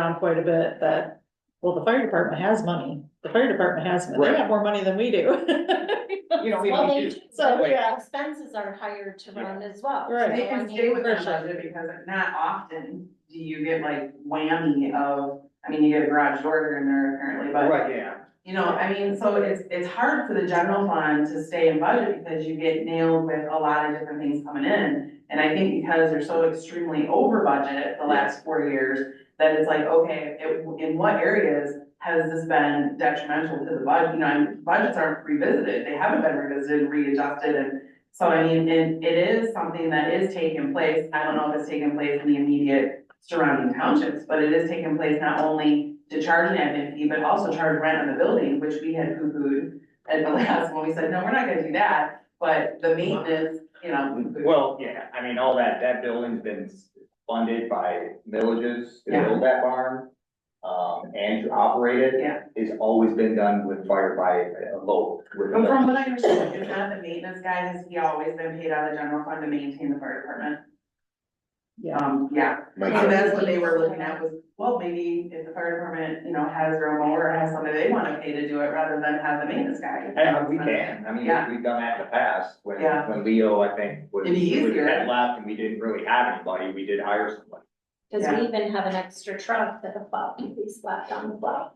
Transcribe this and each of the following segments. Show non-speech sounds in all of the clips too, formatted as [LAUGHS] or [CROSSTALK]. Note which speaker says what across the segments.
Speaker 1: on quite a bit that, well, the fire department has money. The fire department has, they have more money than we do. [LAUGHS] You know, we
Speaker 2: Well,
Speaker 1: don't
Speaker 2: they,
Speaker 1: do.
Speaker 2: do,
Speaker 1: So,
Speaker 2: but their
Speaker 1: yeah.
Speaker 2: expenses are higher to run as well.
Speaker 1: Right.
Speaker 3: They
Speaker 2: So, I
Speaker 3: can
Speaker 2: mean,
Speaker 3: stay with their
Speaker 1: Sure.
Speaker 3: budget because not often do you get like whammy of, I mean, you get a garage door here and there apparently, but.
Speaker 4: Right, yeah.
Speaker 3: You know, I mean, so it's, it's hard for the general fund to stay in budget because you get nailed with a lot of different things coming in. And I think because they're so extremely over budget the last four years, that it's like, okay, it- in what areas has this been detrimental to the budget? You know, and budgets aren't revisited, they haven't been revisited, readjusted, and so I mean, and it is something that is taking place. I don't know if it's taking place in the immediate surrounding townships, but it is taking place not only to charge an admin fee, but also charge rent on the building, which we had poo-pooed at the [LAUGHS] last one. We said, no, we're not gonna do that, but the maintenance, you know. poo-pooed.
Speaker 4: Well, yeah, I mean, all that, that building's been funded by villages to
Speaker 3: Yeah.
Speaker 4: build that barn. Um, and to operate it.
Speaker 3: Yeah.
Speaker 4: It's always been done with fire by a load. with a
Speaker 3: But from
Speaker 4: load.
Speaker 3: what I understand, is not the maintenance guy, has he always been paid out of the general fund to maintain the fire department?
Speaker 1: Yeah,
Speaker 3: Um, yeah, so that's what they were looking at was, well, maybe if the fire department, you know, has their own mower, or has somebody they wanna pay to do it rather than have the maintenance guy.
Speaker 4: And we can, I mean,
Speaker 3: Yeah.
Speaker 4: we've done that in the past, when,
Speaker 3: Yeah.
Speaker 4: when Leo, I think, was,
Speaker 3: It'd be
Speaker 4: was-
Speaker 3: easier.
Speaker 4: had left and we didn't really have anybody, we did hire someone.
Speaker 2: Cause
Speaker 3: Yeah.
Speaker 2: we even have an extra truck that a plow can be slapped on the plow.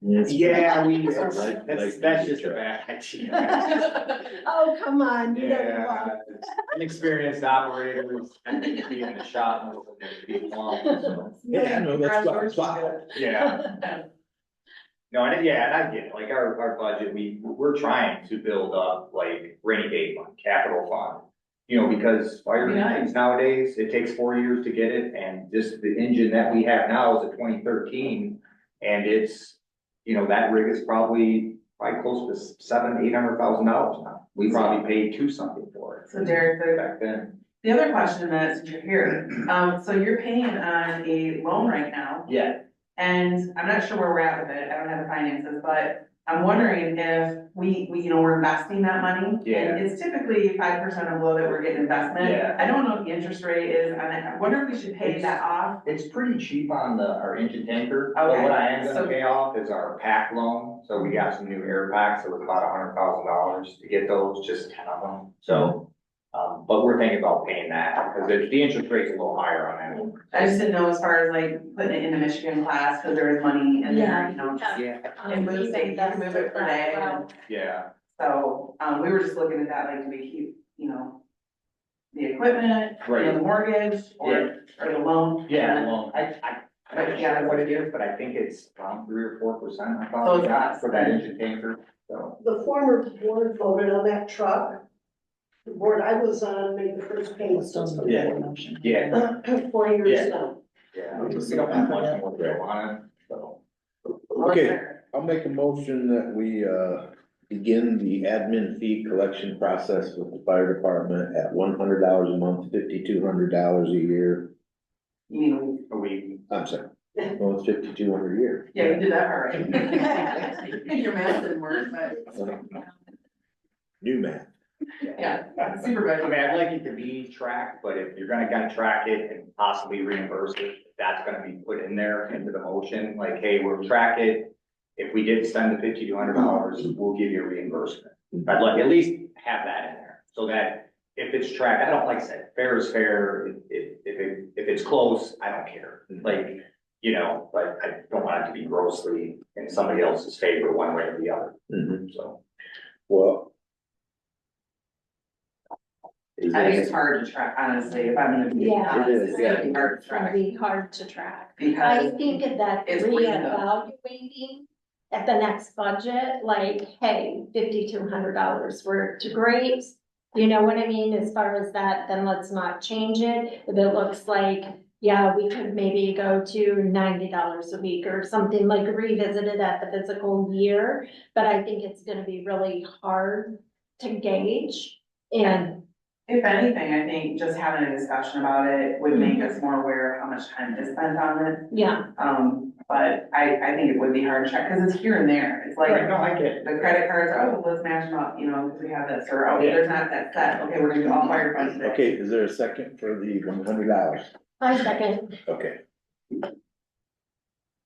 Speaker 4: Yeah, we,
Speaker 2: That's-
Speaker 4: that's, that's just a bad idea.
Speaker 3: [LAUGHS]
Speaker 2: Oh, come on, you know the
Speaker 4: Yeah, inexperienced operator, I think it'd be in the shop, and it'd be long, so.
Speaker 3: Yeah,
Speaker 5: no, that's
Speaker 3: garage
Speaker 5: fine,
Speaker 3: doors
Speaker 5: fine.
Speaker 3: is
Speaker 4: Yeah. No, and yeah, and I get it, like our, our budget, we, we're trying to build up like rainy day fund, capital fund. You know, because fire
Speaker 3: Yeah.
Speaker 4: engines nowadays, it takes four years to get it, and just the engine that we have now is a twenty thirteen. And it's, you know, that rig is probably, probably close to seven, eight hundred thousand dollars now. We probably paid two something for
Speaker 3: good. So Derek,
Speaker 4: it
Speaker 3: the
Speaker 4: back then.
Speaker 3: The other question that since you're here, um, so you're paying on a loan right now,
Speaker 4: Yeah.
Speaker 3: and I'm not sure where we're at with it, I don't have the finances, but I'm wondering if we, we, you know, we're investing that money.
Speaker 4: Yeah.
Speaker 3: And it's typically five percent of low that we're getting investment.
Speaker 4: Yeah.
Speaker 3: I don't know what the interest rate is, on it. I wonder if we should pay
Speaker 4: It's-
Speaker 3: that off,
Speaker 4: It's pretty cheap on the, our engine tanker, but
Speaker 3: Okay.
Speaker 4: what I am
Speaker 3: So-
Speaker 4: gonna pay off is our pack loan, so we got some new air packs, it was about a hundred thousand dollars to get those, just ten of them, so. Um, but we're thinking about paying that, because the, the interest rate's a little higher on that one.
Speaker 3: I just didn't know as far as like putting it in the Michigan class, because there is money in there, you know, just-
Speaker 4: Yeah.
Speaker 2: Um,
Speaker 3: And move it, you can move it per day.
Speaker 2: Well,
Speaker 4: Yeah,
Speaker 3: so, um, we were just looking at that, like, do we keep, you know, the equipment, you know,
Speaker 4: right,
Speaker 3: the mortgage, or, or the loan?
Speaker 4: yeah, well, I, I, I'm not
Speaker 3: Yeah.
Speaker 4: sure what it is, but I think it's around three or four percent, I
Speaker 3: So
Speaker 4: thought,
Speaker 3: it's
Speaker 4: we got
Speaker 3: us.
Speaker 4: for that engine tanker, so.
Speaker 6: the former board voted on that truck. The board I was on made the first payment
Speaker 1: Still need to
Speaker 4: Yeah.
Speaker 1: make a motion.
Speaker 4: Yeah,
Speaker 6: four
Speaker 4: Yeah.
Speaker 6: years ago.
Speaker 4: yeah, we don't have much more to go on it, so.
Speaker 5: Okay, I'll make a motion that we, uh, begin the admin fee collection process with the fire department at one hundred dollars a month, fifty-two hundred dollars a year.
Speaker 3: You mean,
Speaker 4: We,
Speaker 5: I'm sorry, well, it's fifty-two hundred a year.
Speaker 3: yeah, you did that [LAUGHS] already. Your math didn't work, but
Speaker 5: New math.
Speaker 4: [LAUGHS]
Speaker 3: yeah, super
Speaker 4: I
Speaker 3: budget.
Speaker 4: mean, I'd like it to be tracked, but if you're gonna kinda track it and possibly reimburse it, that's gonna be put in there into the motion, like, hey, we'll track it. If we did spend the fifty-two hundred dollars, we'll give you a reimbursement. I'd like, at least have that in there, so that if it's tracked, I don't, like I said, fair is fair, if, if, if it- if it's close, I don't care. Like, you know, but I don't want it to be grossly in somebody else's favor one way or the other,
Speaker 5: Mhm.
Speaker 4: so.
Speaker 5: Well. Is
Speaker 3: I think
Speaker 5: that-
Speaker 3: it's hard to track, honestly, if I'm gonna be
Speaker 2: Yeah.
Speaker 3: honest,
Speaker 5: It is,
Speaker 3: it's gonna
Speaker 5: yeah.
Speaker 3: be hard to
Speaker 2: It's gonna
Speaker 3: track.
Speaker 2: be hard to track. I
Speaker 3: Because,
Speaker 2: think that
Speaker 3: It's window.
Speaker 2: reevaluating at the next budget, like, hey, fifty-two hundred dollars were to grapes. You know what I mean? As far as that, then let's not change it. If it looks like, yeah, we could maybe go to ninety dollars a week or something like revisited at the physical year. But I think it's gonna be really hard to gauge and,
Speaker 3: if anything, I think just having a discussion about it would make us more aware of how much time is spent on it.
Speaker 2: yeah,
Speaker 3: Um, but I, I think it would be hard to check, because it's here and there, it's like,
Speaker 4: Right, no, I get it.
Speaker 3: the credit cards, oh, let's match them up, you know, because we have this, or, oh, there's not that set, okay, we're gonna do all fire funds today.
Speaker 5: Okay, is there a second for the one hundred dollars?
Speaker 2: five seconds.
Speaker 5: Okay.